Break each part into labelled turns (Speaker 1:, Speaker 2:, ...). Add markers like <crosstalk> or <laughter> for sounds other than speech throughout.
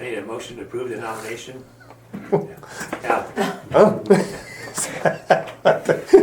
Speaker 1: I need a motion to approve the nomination. Yeah,
Speaker 2: Oh,
Speaker 3: <laughs>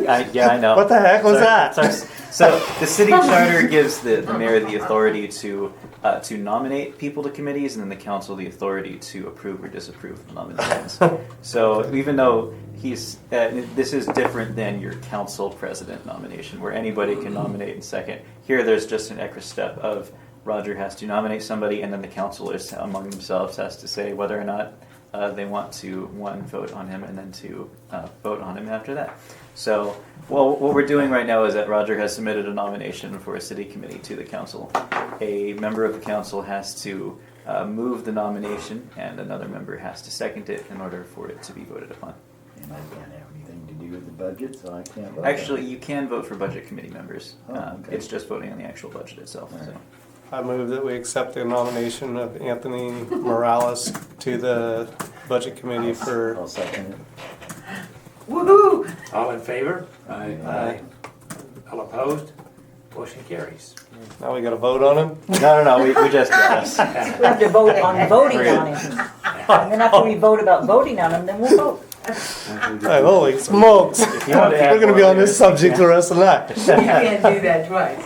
Speaker 3: I, <laughs> yeah, I know.
Speaker 2: What the heck was
Speaker 3: So-
Speaker 2: that?
Speaker 3: So, so the city charter gives the, the mayor the authority to uh, to nominate people to committees, and then the council the authority to approve or disapprove
Speaker 2: <laughs>
Speaker 3: the nominations. so even though he's uh, this is different than your council president nomination, where anybody can nominate and second. Here, there's just an extra step of Roger has to nominate somebody, and then the councilors among themselves has to say whether or not uh, they want to one vote on him and then to uh, vote on him after that. So, well, what we're doing right now is that Roger has submitted a nomination for a city committee to the council. A member of the council has to uh, move the nomination, and another member has to second it in order for it to be voted upon.
Speaker 4: And I don't have anything to do with the budget, so I can't vote. on it.
Speaker 3: Actually, you can vote for budget committee members.
Speaker 4: Oh,
Speaker 3: Uh,
Speaker 4: okay.
Speaker 3: It's just voting on the actual budget itself.
Speaker 4: All
Speaker 3: So.
Speaker 4: right.
Speaker 2: I move that we accept the nomination of Anthony Morales to the Budget Committee for.
Speaker 4: I'll second it.
Speaker 5: Woohoo!
Speaker 1: all in favor?
Speaker 2: Aye.
Speaker 1: All opposed? Motion carries.
Speaker 2: Now we got to vote on him.
Speaker 3: No, no, no, we, we just did this.
Speaker 5: We have to vote on voting on him. And then after we vote about voting on him, then we'll vote.
Speaker 2: Hey, holy smokes!
Speaker 3: you want to add
Speaker 2: We're going to be
Speaker 3: more
Speaker 2: on this
Speaker 3: later.
Speaker 2: subject the rest of the night.
Speaker 3: <laughs>
Speaker 6: <laughs> You can't do that twice.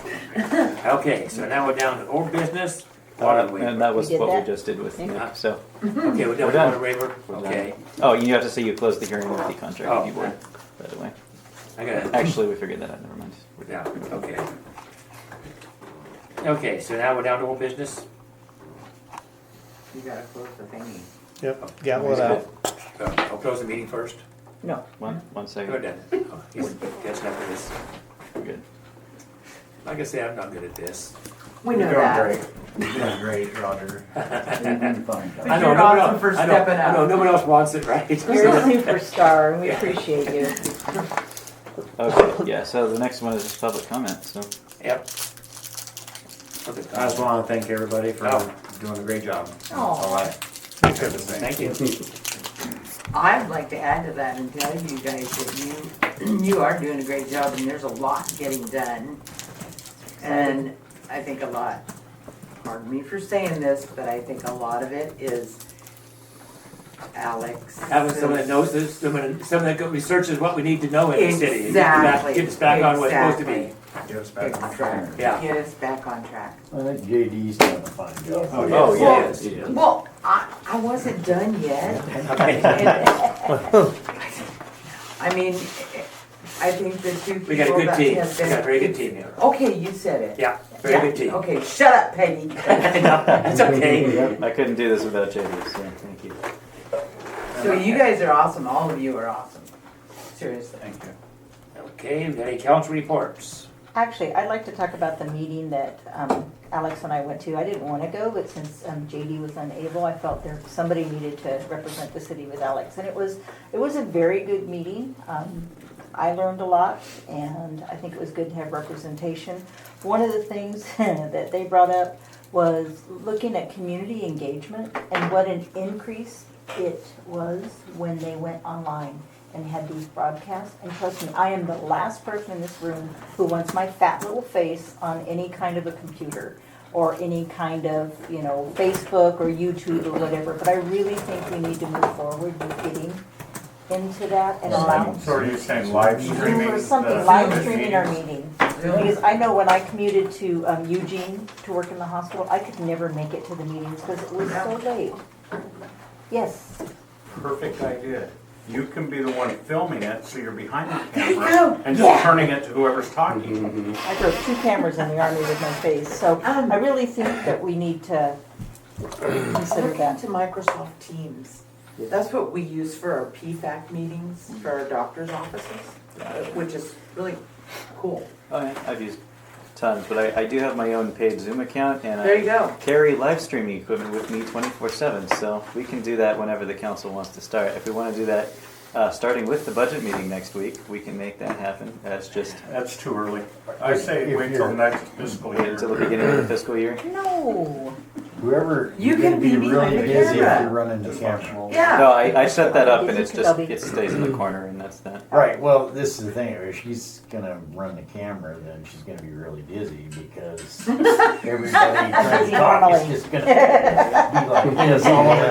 Speaker 1: Okay, so now we're down to old business, water
Speaker 3: And
Speaker 1: waiver.
Speaker 3: that was
Speaker 5: We did
Speaker 3: what
Speaker 5: that?
Speaker 3: we just did with
Speaker 1: Yeah.
Speaker 3: so.
Speaker 1: Okay, we're
Speaker 3: We're
Speaker 1: done with
Speaker 3: done.
Speaker 1: water waiver, okay.
Speaker 3: Oh, you have to say you closed the hearing with the contract
Speaker 1: Oh.
Speaker 3: review board, by the way.
Speaker 1: I got it,
Speaker 3: Actually, we figured that out, never mind. We're
Speaker 1: yeah,
Speaker 3: down.
Speaker 1: okay. Okay, so now we're down to old business?
Speaker 6: You gotta close the thingy.
Speaker 2: Yep, got one out.
Speaker 1: So Uh, I'll close the meeting first.
Speaker 5: No.
Speaker 3: One, one second.
Speaker 1: Good then. Oh, He's catching up with this.
Speaker 3: We're good.
Speaker 1: Like I said, I'm not good at this.
Speaker 6: We know that.
Speaker 4: You're doing great, Roger.
Speaker 6: <laughs>
Speaker 1: I
Speaker 6: You're
Speaker 1: know, no one
Speaker 6: awesome
Speaker 1: else-
Speaker 6: for
Speaker 1: I know-
Speaker 6: stepping
Speaker 1: I know,
Speaker 6: up.
Speaker 1: no one else wants it, right? <laughs>
Speaker 5: You're a superstar and we appreciate you.
Speaker 3: Okay, yeah, so the next one is just public comment, so.
Speaker 1: Yep.
Speaker 7: I just want to thank everybody for
Speaker 1: Oh.
Speaker 7: doing a great job. That's
Speaker 5: <laughs> Aw.
Speaker 7: all I have to say.
Speaker 1: Thank you.
Speaker 6: I'd like to add to that and tell you guys that you, <clears throat> you are doing a great job and there's a lot getting done. And I think a lot, pardon me for saying this, but I think a lot of it is Alex.
Speaker 1: Having someone that knows this, someone, someone that go- researches what we need to know in the city. and get us back-
Speaker 6: Exactly.
Speaker 1: Get us back on what's supposed to be.
Speaker 6: Exactly.
Speaker 7: Get us back on track.
Speaker 6: Exactly.
Speaker 1: Yeah.
Speaker 6: Get us back on track.
Speaker 4: I think JD's done a fine job.
Speaker 6: Oh,
Speaker 1: yes.
Speaker 3: Oh, yeah,
Speaker 1: Yes.
Speaker 3: yeah.
Speaker 6: Well, I, I wasn't done yet.
Speaker 1: <laughs> Okay.
Speaker 6: I mean, I think the two
Speaker 1: We got a
Speaker 6: people
Speaker 1: good
Speaker 6: that
Speaker 1: team. We
Speaker 6: have
Speaker 1: got a
Speaker 6: been.
Speaker 1: very good team here.
Speaker 6: Okay, you said it.
Speaker 1: Yeah, very good
Speaker 6: Yeah,
Speaker 1: team.
Speaker 6: Okay, shut
Speaker 1: <laughs>
Speaker 6: up, Peggy.
Speaker 1: No, That's okay.
Speaker 3: I couldn't do this without JD, so thank you.
Speaker 6: So you guys are awesome, all of you are awesome. Seriously.
Speaker 7: Thank you.
Speaker 1: Okay, we got any council reports?
Speaker 5: Actually, I'd like to talk about the meeting that um, Alex and I went to. I didn't want to go, but since um, JD was unable, I felt there, somebody needed to represent the city with Alex. And it was, it was a very good meeting. Um, I learned a lot, and I think it was good to have representation. One of the things <laughs> that they brought up was looking at community engagement and what an increase it was when they went online and had these broadcasts. And trust me, I am the last person in this room who wants my fat little face on any kind of a computer or any kind of, you know, Facebook or YouTube or whatever. But I really think we need to move forward with getting into that and allow.
Speaker 8: So are you saying live streaming?
Speaker 5: Or something,
Speaker 8: the-
Speaker 5: live
Speaker 8: the
Speaker 5: streaming our
Speaker 8: meetings?
Speaker 5: meeting. Because I know when I commuted to um, Eugene to work in the hospital, I could never make it to the meetings because it was so late. Yes,
Speaker 8: Perfect idea. You can be the one filming it, so you're behind the
Speaker 6: go.
Speaker 8: camera and
Speaker 5: Yeah.
Speaker 8: just turning it to whoever's talking.
Speaker 4: Mm-hmm.
Speaker 5: I drove two cameras in the army with my face, so I really think that we need to consider
Speaker 6: Look
Speaker 5: that.
Speaker 6: into Microsoft Teams. That's what we use for our PFAC meetings, for our doctor's offices, uh, which is really cool.
Speaker 3: Oh, yeah, I've used tons, but I, I do have my own paid Zoom account, and I.
Speaker 6: There you go.
Speaker 3: Carry live streaming equipment with me twenty-four seven, so we can do that whenever the council wants to start. If we want to do that, uh, starting with the budget meeting next week, we can make that happen. That's just
Speaker 8: That's too early. I say
Speaker 4: If
Speaker 8: wait till
Speaker 4: you're-
Speaker 8: next fiscal year.
Speaker 3: until the beginning of the fiscal year.
Speaker 5: No,
Speaker 4: Whoever,
Speaker 6: You
Speaker 4: you're gonna
Speaker 6: can be
Speaker 4: be
Speaker 6: behind
Speaker 4: really
Speaker 6: the
Speaker 4: busy if
Speaker 6: camera.
Speaker 4: you're running the camera.
Speaker 3: No, I, I set that up and
Speaker 5: Busy
Speaker 3: it's
Speaker 5: could
Speaker 3: just,
Speaker 5: be.
Speaker 3: it stays in the corner and that's that.
Speaker 4: Right, well, this is the thing, if she's gonna run the camera, then she's gonna be really busy
Speaker 6: <laughs> <laughs>
Speaker 4: because everybody trying to talk is just gonna be like this all the